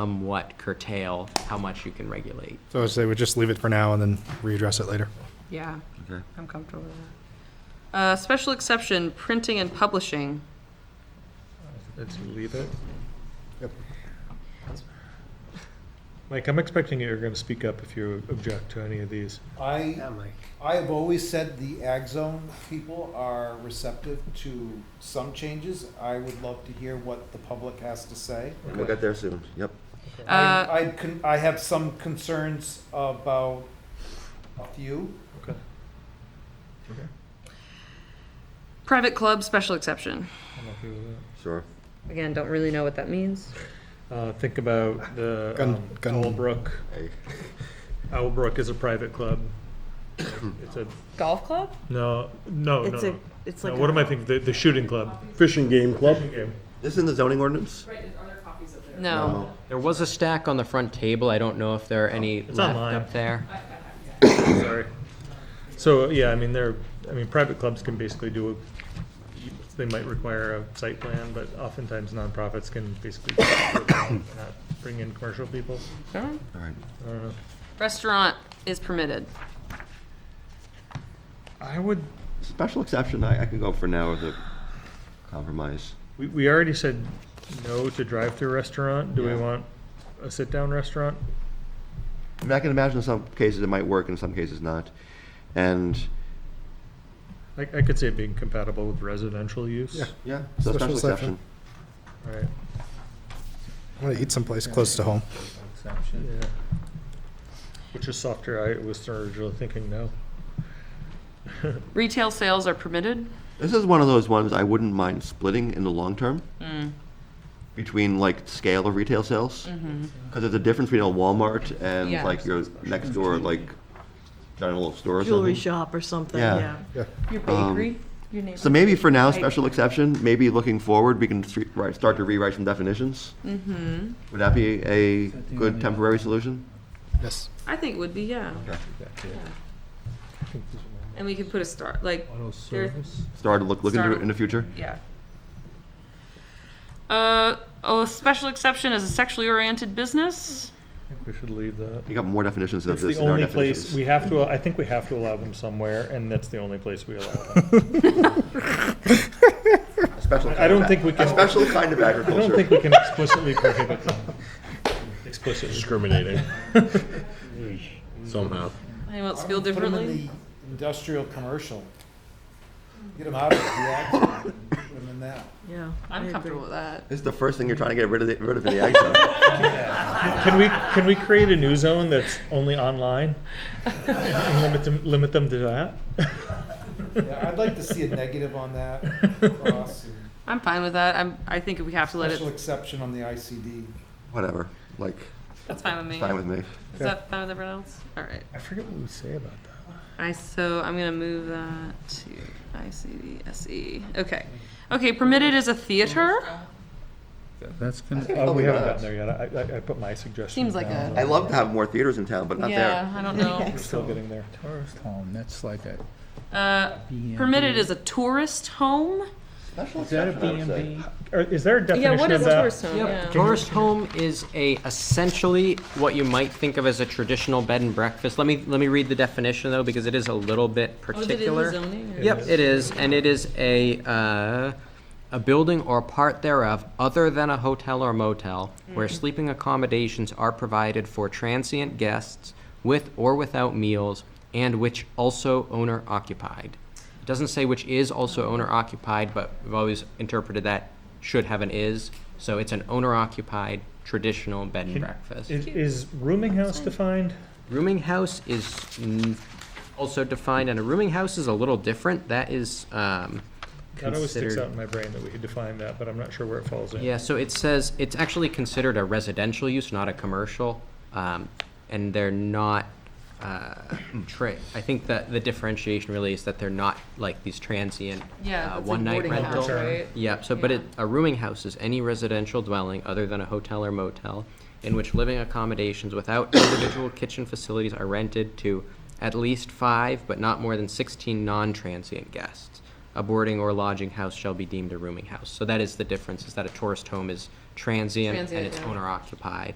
somewhat curtail how much you can regulate. So I say we just leave it for now and then readdress it later. Yeah, Okay. I'm comfortable with that. Uh, special exception, printing and publishing. Let's leave it. Yep. Mike, I'm expecting you're going to speak up if you object to any of these. I, I have always said the ag zone people are receptive to some changes. I would love to hear what the public has to say. We'll get there soon. Yep. Uh, I, I con, I have some concerns about a few. Okay. private club, special exception. I'm okay with Sure. Again, don't really know what that means. that. Uh, think about the Gun- um, gun- Owlbrook. Hey. Owlbrook is a private club. It's a, Golf club? no, no, It's no. a, it's no. like. No, what a- am I thinking? The, the shooting club. Fishing game club. Okay. This in the zoning ordinance? No. There was a stack on the front table. I don't know if there are any Oh, It's left online. up there. Sorry. So, yeah, I mean, they're, I mean, private clubs can basically do, a- they might require a site plan, but oftentimes nonprofits can basically not bring in commercial people. Alright. All right. I don't know. Restaurant is permitted. I would, Special exception, I, I can go for now with a compromise. we, we already said no to drive-through restaurant. Do we Yeah. want a sit-down restaurant? I mean, I can imagine in some cases it might work, in some cases not. And, I, I could see it being compatible with residential use. yeah, Special so special exception. All right. I'm gonna eat someplace close to home. Yeah. Which is softer. I was originally thinking no. Retail sales are permitted. This is one of those ones I wouldn't mind splitting in the long term. Between like scale of retail sales. Because there's a difference between a Walmart and Yeah. like your next door, like general store or something. Jewelry shop or something, Yeah. yeah. Yeah. Your bakery, your neighborhood. Um, So maybe for now, special exception, maybe looking forward, we can stre- right, start to rewrite some definitions. Mm-hmm. Would that be a good temporary solution? Yes. I think would be, yeah. And we could put a star, like, Auto there, Start to look, look into Start- it in the future? yeah. Uh, oh, a special exception is a sexually oriented business. I think we should leave that. You got more definitions of It's this the in our only place, we definitions. have to, I think we have to allow them somewhere, and that's the only place we allow them. A special I kind don't of think ag- we can- A special kind of I don't think agriculture. we can explicitly prohibit them. Explicitly. Discriminating. Somehow. Anyone else feel Put 'em in differently? the Industrial, commercial. Get them out of the ag zone, put them in that. Yeah. I I'm agree. comfortable with that. This is the first thing you're trying to get rid of, the- rid of in the ag zone. Can we, can we create a new zone that's only online? And limit them, limit them to that? Yeah, I'd like to see a negative on that, cross, and I'm fine with that. I'm, I think we have to let special it, exception on the ICD. Whatever, like, that's fine with me. fine with me. Is that fine with everyone else? All right. I forget what we say about that. I, so I'm gonna move that to ICDSE. E. Okay. Okay, permitted is a theater? That's gonna, Uh, we Probably haven't not. gotten there yet. I, I, I put my suggestion. Seems like down. I love to have more theaters in town, but not there. Yeah, I don't know. We're still getting there. tourist home, that's like a. Uh, permitted is a tourist home? Special Is that a exception, I would say. B&B? Or Is there a definition Yeah, of that? what is a tourist home? Yep. Yeah. Tourist home is a essentially what you might think of as a traditional bed and breakfast. Let me let me read the definition though because it is a little bit Oh, particular. Yep, it is, and it is a, uh, a building or part thereof, other than a hotel or motel, where sleeping accommodations are provided for transient guests with or without meals, and which also owner occupied. It doesn't say which is also owner occupied, but we've always interpreted that should have an is, so it's an owner occupied traditional bed and breakfast. Is, is rooming house defined? Rooming house is mm, also defined, and a rooming house is a little different. That is um, That always sticks considered. out in my brain that we could define that, but I'm not sure where it falls in. Yeah, so it says, it's actually considered a residential use, not a commercial. um, And they're not, uh, tra- I think that the differentiation really is that they're not like these transient, uh, Yeah, that's like one-night boarding rental. house, right? Yeah, so, but Yeah. it, a rooming house is any residential dwelling other than a hotel or motel in which living accommodations without individual kitchen facilities are rented to at least five, but not more than sixteen non-transient guests. A boarding or lodging house shall be deemed a rooming house. So that is the difference, is that a tourist home is transient and Transient, it's yeah. owner occupied.